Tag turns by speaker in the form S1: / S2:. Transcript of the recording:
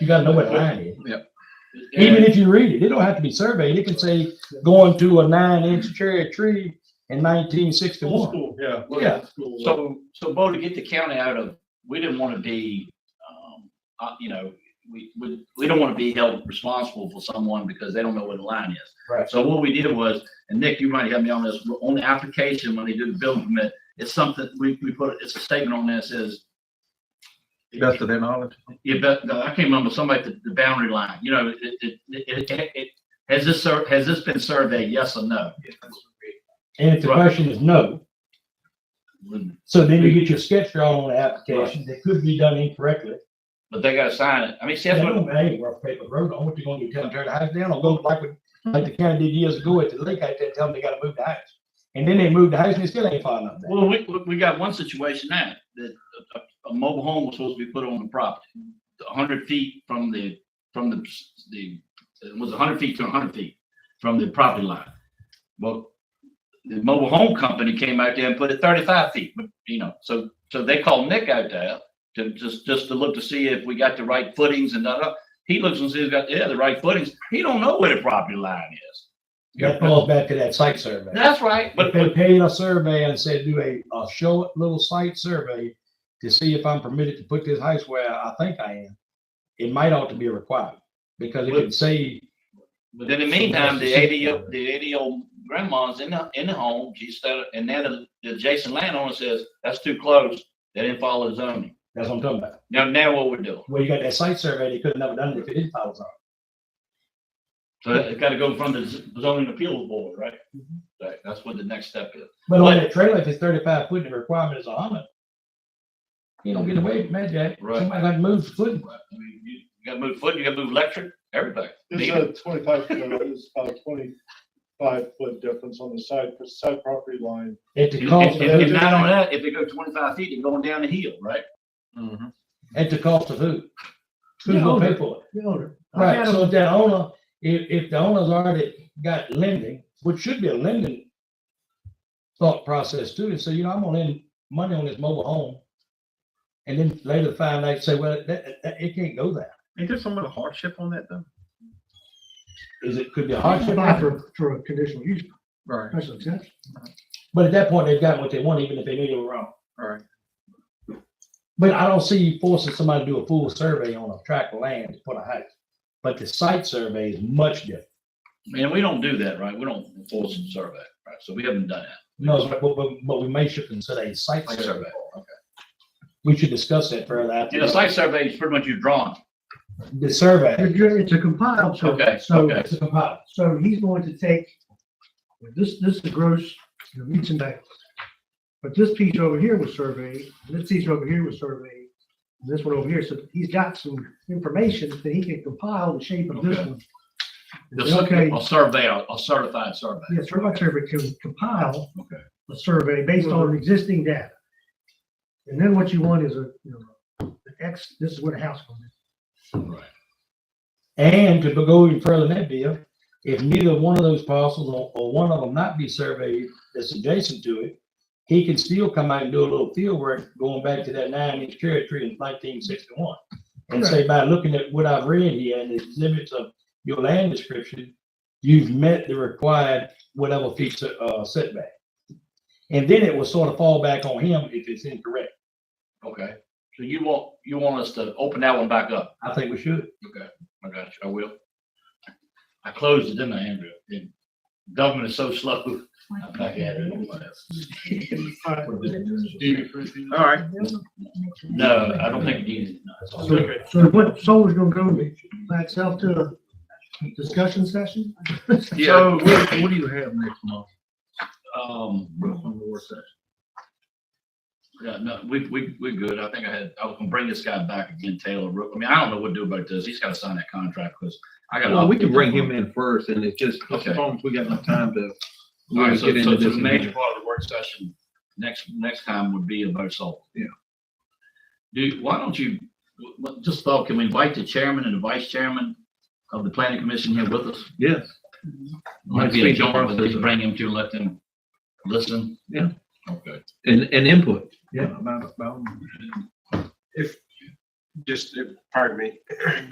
S1: You gotta know what nine is.
S2: Yeah.
S1: Even if you read it, it don't have to be surveyed. It can say going to a nine inch cherry tree in nineteen
S3: Old
S1: sixty-one.
S3: school, yeah.
S1: Yeah.
S3: School.
S2: So, so Bo, to get the county out of, we didn't want to be, um, uh, you know, we, we, we don't want to be held responsible for someone because they don't know where the line is.
S1: Right.
S2: So what we did was, and Nick, you might have me on this, on the application, when they do the building permit, it's something, we, we put, it's a statement on this is.
S4: Best of their knowledge.
S2: Yeah, but no, I can't remember somebody, the, the boundary line, you know, it, it, it, it, it, has this, sur- has this been surveyed, yes or no?
S1: And if the
S2: Right.
S1: question is no, so then you get your sketch drawn on the application that could be done incorrectly.
S2: But they gotta sign it. I mean, see,
S1: That
S2: that's what,
S1: don't ain't worth paper road. on what you gonna do, tell them, tear the house down or go like, we- like the county did years ago at the lake out there, tell them they gotta move the house. And then they moved the house and they still ain't following up that.
S2: well, we, we- we got one situation now, that a- a, a mobile home was supposed to be put on the property. A hundred feet from the, from the, the, it was a hundred feet to a hundred feet from the property line. Well, the mobile home company came out there and put it thirty-five feet, but, you know, so, so they called Nick out there to just, just to look to see if we got the right footings and da, da. He looks and says, got, yeah, the right footings. He don't know where the property line is.
S1: That falls back to that site survey.
S2: That's right,
S1: But
S2: but,
S1: they paid a survey and said, do a, a show it little site survey to see if I'm permitted to put this house where I think I am. It might ought to be a requirement because it can save.
S2: But then in the meantime, the eighty, year- the eighty year old grandma's in the, in the home, she started, and then the- the adjacent landowner says, that's too close. They didn't follow the zoning.
S1: That's what I'm talking about.
S2: Now, now what we're doing.
S1: Well, you got that site survey, they could have never done it if it didn't follow zoning.
S2: So it's gotta go from the z- zoning appeals board, right? Right, that's what the next step is.
S1: But on that trailer, if it's thirty-five foot, and the requirement is a hundred. You don't get away from that, Jack.
S2: Right.
S1: Somebody got to move the foot.
S2: I mean, You you gotta move foot, you gotta move electric, everything.
S3: It's a twenty-five, foot- it's about a twenty-five foot difference on the side, the side property line.
S1: At the
S2: If
S1: cost
S2: if-
S1: of,
S3: those-
S2: if
S1: who?
S2: not on that, if they go twenty-five feet, they're going down the hill, right?
S4: Mhm.
S1: at the cost of who? Who's
S5: The
S2: oh,
S1: gonna pay
S5: owner,
S1: for it?
S5: the owner. I
S1: Right,
S5: had
S1: so if that owner, if, if the owner's already got lending, which should be a lending thought process too, and say, you know, I'm gonna lend money on this mobile home. And then later find out, say, well, that, that, it can't go there.
S4: Ain't there some of the hardship on that though?
S1: Is it, could be a
S5: a- I
S1: hardship,
S5: applied for, for a conditional use,
S4: Right,
S5: special exception.
S1: but at that point, they've got what they want, even if they knew they were wrong.
S4: right.
S1: But I don't see you forcing somebody to do a full survey on a tract of land to put a house. But the site survey is much different.
S2: And we don't do that, right? We don't enforce the survey, right? So we haven't done that.
S1: No, but, but, but- but we may should consider a site
S2: Site
S1: survey.
S2: survey,
S1: We should discuss that further after.
S2: You know, site survey is pretty much your drawing.
S1: The survey.
S5: It's ju- it's a compiled survey,
S2: Okay,
S5: so,
S2: okay.
S1: It's a compile.
S5: so he's going to take, this, this is gross, you know, meets and bounds. But this piece over here was surveyed, and this piece over here was surveyed, and this one over here, so he's got some information that he can compile the shape of this
S2: Okay.
S5: one.
S2: The
S5: And say,
S2: cer-
S5: Okay,
S2: A survey, a a certified survey.
S5: yeah, survey survey can compile
S2: Okay.
S5: a survey based on existing data. And then what you want is a, you know, an X, this is what a house was.
S2: Right.
S1: And to go even further than that, Bill, if neither one of those parcels or, or one of them not be surveyed that's adjacent to it, he can still come out and do a little field work going back to that nine inch cherry tree in nineteen sixty-one. And say by looking at what I've read here and the exhibits of your land description, you've met the required whatever feature, uh, setback. And then it will sort of fall back on him if it's incorrect.
S2: Okay, so you want, you want us to open that one back up?
S1: I think we should.
S2: Okay, I got you, I will. I closed it, didn't I, Andrew? And Government is so slow. I'm back at it.
S4: All right,
S2: No, I don't think it needed. no, it's all
S5: So
S2: good.
S5: so what, so we're gonna go by itself to a discussion session?
S4: so what, what do you have next month?
S2: Um,
S4: on the work session?
S2: yeah, no, we, we, we're good. I think I had, I was gonna bring this guy back again, Taylor. Rook. I mean, I don't know what to do about this. He's gotta sign that contract because I got.
S4: Well, we can bring him in first and it's just, as
S2: Okay.
S4: long as we got enough time to.
S2: All right,
S4: really
S2: so,
S4: get
S2: so
S4: into
S2: so
S4: this
S2: the
S4: and
S2: major
S4: that.
S2: part of the work session, next, next time would be about salt.
S4: Yeah.
S2: Do, why don't you, wh- wh- just thought, can we invite the chairman and the vice chairman of the planning commission here with us?
S4: Yes,
S2: Might be a
S4: Speak to
S2: joint,
S4: Mark.
S2: but just bring him to let them listen.
S4: Yeah.
S2: Okay.
S4: and, and input. Yeah. About, about.
S6: just, pardon me,